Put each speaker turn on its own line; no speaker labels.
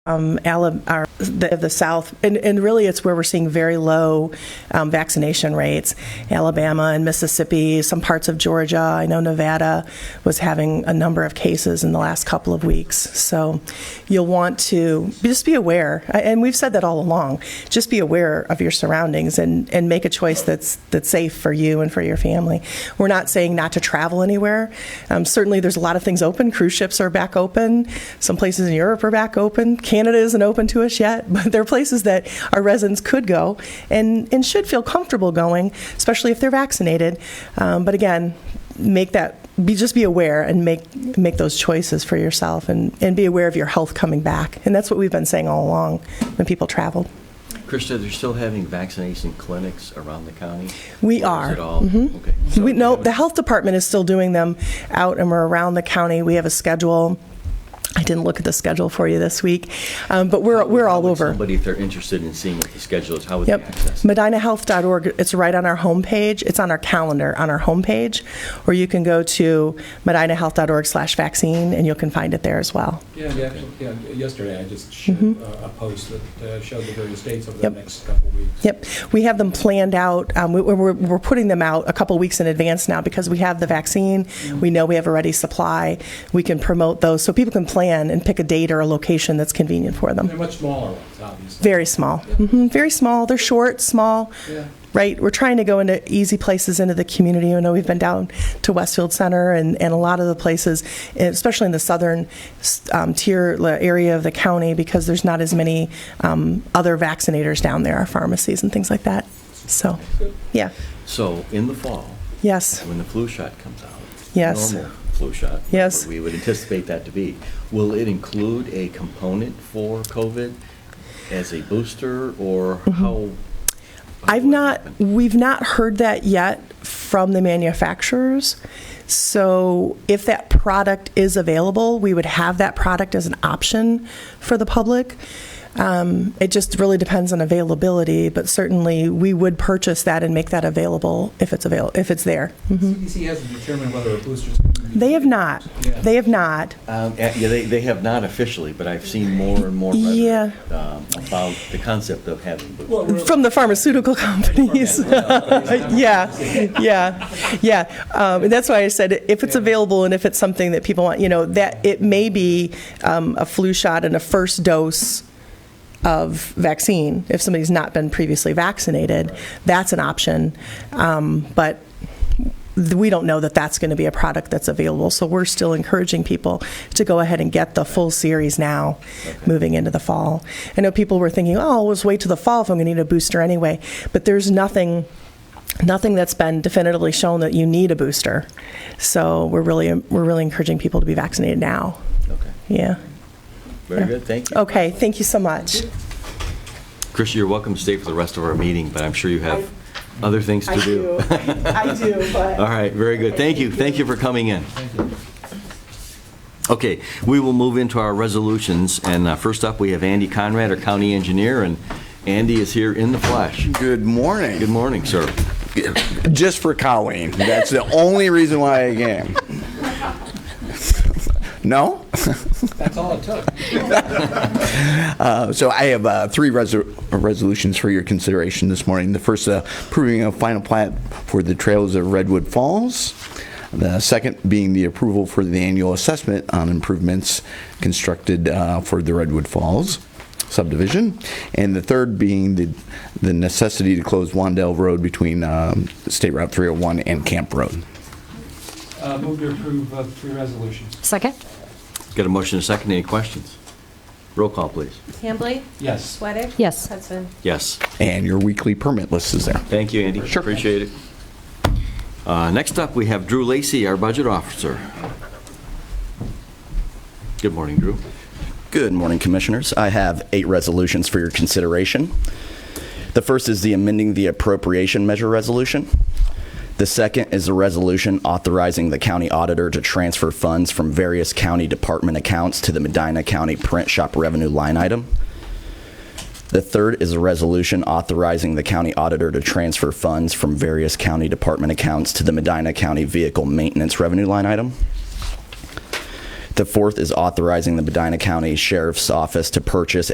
um, Ala- our, the, the South, and, and really it's where we're seeing very low um, vaccination rates. Alabama and Mississippi, some parts of Georgia. I know Nevada was having a number of cases in the last couple of weeks. So you'll want to just be aware, I- and we've said that all along. Just be aware of your surroundings and, and make a choice that's that's safe for you and for your family. We're not saying not to travel anywhere. Um, certainly, there's a lot of things open. Cruise ships are back open. Some places in Europe are back open. Canada isn't open to us yet, but there are places that our residents could go and, and should feel comfortable going, especially if they're vaccinated. Um, but again, make that be just be aware and make make those choices for yourself and, and be aware of your health coming back. And that's what we've been saying all along when people traveled.
Krista, they're still having vaccination clinics around the county?
We
Or
are. Mm-hmm.
Is it all? Okay. So
We, no,
that
the health department is still doing them out and we're around the county. We have a schedule. I didn't look at the schedule for you this week, um, but we're, we're all
would
over.
Somebody, if they're interested in seeing what the schedule is, how would they
Yep.
access? it?
MedinaHealth.org. It's right on our homepage. It's on our calendar on our homepage, or you can go to medinahealth.org slash vaccine and you can find it there as well.
Yeah, the actual- yeah, yesterday I just showed uh, a post that uh, showed the various dates over the
Mm-hmm. Yep.
next couple of weeks.
Yep, we have them planned out. Um, we, we're, we're putting them out a couple weeks in advance now because we have the vaccine. We know we have a ready supply. We can promote those so people can plan and pick a date or a location that's convenient for
They're
them.
much smaller ones, obviously.
Very small, hmm very small. They're short, small.
Yeah.
Right, we're trying to go into easy places into the community. I know we've been down to Westfield Center and, and a lot of the places, especially in the southern um, tier la- area of the county, because there's not as many um, other vaccinators down there, our pharmacies and things like that. So, yeah,
So in the fall,
yes.
when the flu shot comes out?
Yes.
Normal flu shot?
Yes.
whatever We would anticipate that to be. Will it include a component for COVID as a booster or how? how
Mm-hmm. I've
will it
not,
happen?
we've not heard that yet from the manufacturers. So if that product is available, we would have that product as an option for the public. Um, it just really depends on availability, but certainly we would purchase that and make that available if it's avail, if it's there.
CDC hasn't determined whether a booster's.
Mm-hmm. They have not,
Yeah.
they have not.
Um, Yeah, yeah, they, they have not officially, but I've seen more and more rhetoric,
Yeah.
um, about the concept of having boosters.
Well, we're-
From the pharmaceutical companies. Yeah, yeah, yeah. Um, and that's why I said if it's available and if it's something that people want, you know, that it may be um, a flu shot and a first dose of vaccine. If somebody's not been previously vaccinated, that's an option. Um, but th- we don't know that that's going to be a product that's available. So we're still encouraging people to go ahead and get the full series now, moving into the fall. I know people were thinking, oh, I'll just wait till the fall if I'm going to need a booster anyway. But there's nothing. Nothing that's been definitively shown that you need a booster, so we're really we're really encouraging people to be vaccinated now.
Okay,
Yeah.
very good, thank you.
Okay. Thank you so much.
Chris, you're welcome to stay for the rest of our meeting, but I'm sure you have other things to do.
I do. But
All right, very good. Thank you. Thank you for coming in. Okay, we will move into our resolutions, and uh, first up, we have Andy Conrad, our county engineer, and Andy is here in the flesh.
Good morning.
Good morning, sir.
Just for Colleen. That's the only reason why I came. No?
That's all it took.
Uh, So I have uh, three resol- resolutions for your consideration this morning. The first, uh, approving a final plat for the trails of Redwood Falls. The second being the approval for the annual assessment on improvements constructed uh, for the Redwood Falls subdivision. And the third being the the necessity to close Wandell Road between um, State Route 301 and Camp Road.
Uh, Move to approve uh, three resolutions.
Second?
Got a motion and a second. Any questions? Roll call, please.
Hambley?
Yes.
Sweattick?
Yes.
Hudson?
Yes.
And your weekly permit list is there.
Thank you, Andy.
Sure.
Appreciate it. Uh, Next up, we have Drew Lacy, our budget officer. Good morning, Drew.
Good morning, Commissioners. I have eight resolutions for your consideration. The first is the amending the appropriation measure resolution. The second is the resolution authorizing the county auditor to transfer funds from various county department accounts to the Medina County Print Shop revenue line item. The third is a resolution authorizing the county auditor to transfer funds from various county department accounts to the Medina County Vehicle Maintenance revenue line item. The fourth is authorizing the Medina County Sheriff's Office to purchase